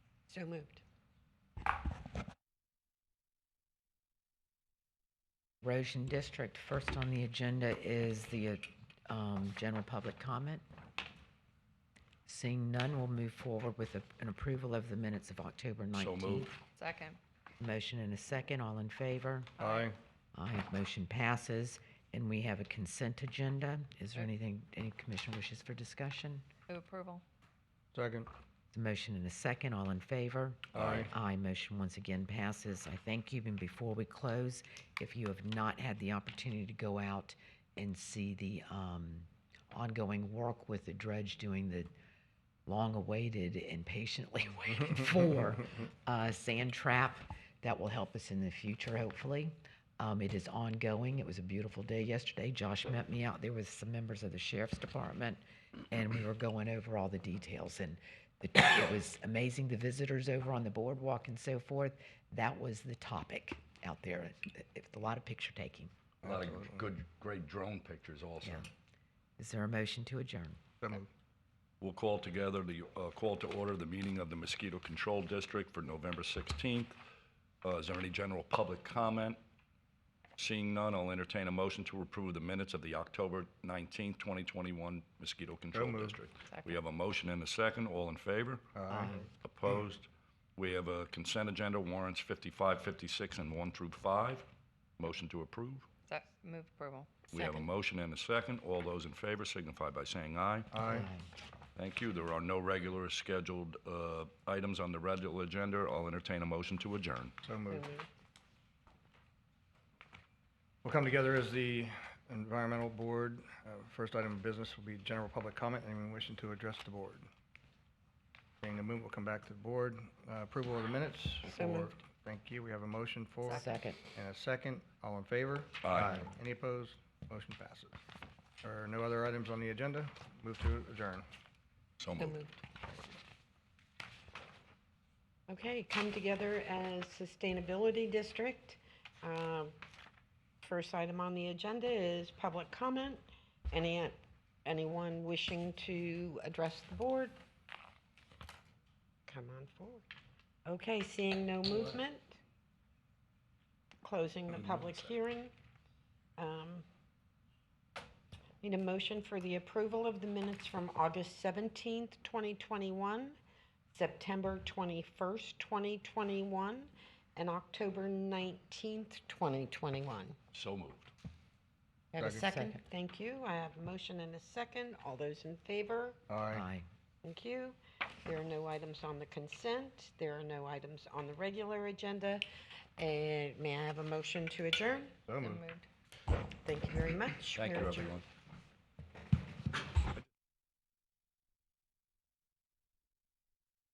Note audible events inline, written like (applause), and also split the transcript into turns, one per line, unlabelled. So moved.
Erosion District. First on the agenda is the um, general public comment. Seeing none, we'll move forward with a- an approval of the minutes of October 19th.
moved.
Second.
Motion and a second, all in favor?
Aye.
Aye, motion passes. And we have a consent agenda. Is there
Okay.
anything, any commission wishes for discussion?
Move approval.
Second.
The motion and a second, all in favor?
Aye.
Aye, motion once again passes. I thank you, and before we close, if you have not had the opportunity to go out and see the um, ongoing work with the dredge doing the long-awaited and patiently (laughs) waited for uh, sand trap, that will help us in the future, hopefully. Um, It is ongoing. It was a beautiful day yesterday. Josh met me out there with some members of the sheriff's department, and we were going over all the details. And the- it was amazing, the visitors over on the boardwalk and so forth. That was the topic out there. It- it's A lot of picture taking.
A lot of good, great drone pictures also.
Yeah. Is there a motion to adjourn?
So moved.
We'll call together the, uh, call to order the meeting of the Mosquito Control District for November 16th. Uh, Is there any general public comment? Seeing none, I'll entertain a motion to approve the minutes of the October 19th, 2021 Mosquito Control
moved.
District. We have a motion and a second. All in favor? Aye. Opposed? We have a consent agenda warrants 55, 56, and 1 through 5. Motion to approve?
Se- Move approval.
We have a motion and a second. All those in favor signify by saying aye.
Aye.
Thank you. There are no regular scheduled uh, items on the regular agenda. I'll entertain a motion to adjourn.
So moved. We'll come together as the Environmental Board. Uh, First item of business will be general public comment. Anyone wishing to address the board? Seeing the move, we'll come back to the board. Uh, Approval of the minutes.
So
for-
moved.
Thank you. We have a motion for
Second.
and a second. All in favor?
Aye.
Any opposed? Motion passes. There are no other items on the agenda. Move to adjourn.
So
So
moved.
moved. Okay, come together as Sustainability District. Um, First item on the agenda is public comment. Any, anyone wishing to address the board? Come on forward. Okay, seeing no movement, closing the public hearing. Um, Need a motion for the approval of the minutes from August 17th, 2021, September 21st, 2021, and October 19th, 2021.
So moved.
I Have a
Second.
second? Thank you. I have a motion and a second. All those in favor?
Aye.
Aye.
Thank you. There are no items on the consent. There are no items on the regular agenda. And may I have a motion to adjourn?
So moved.
Thank you very much.
Thank you,
We're adjourned.
everyone.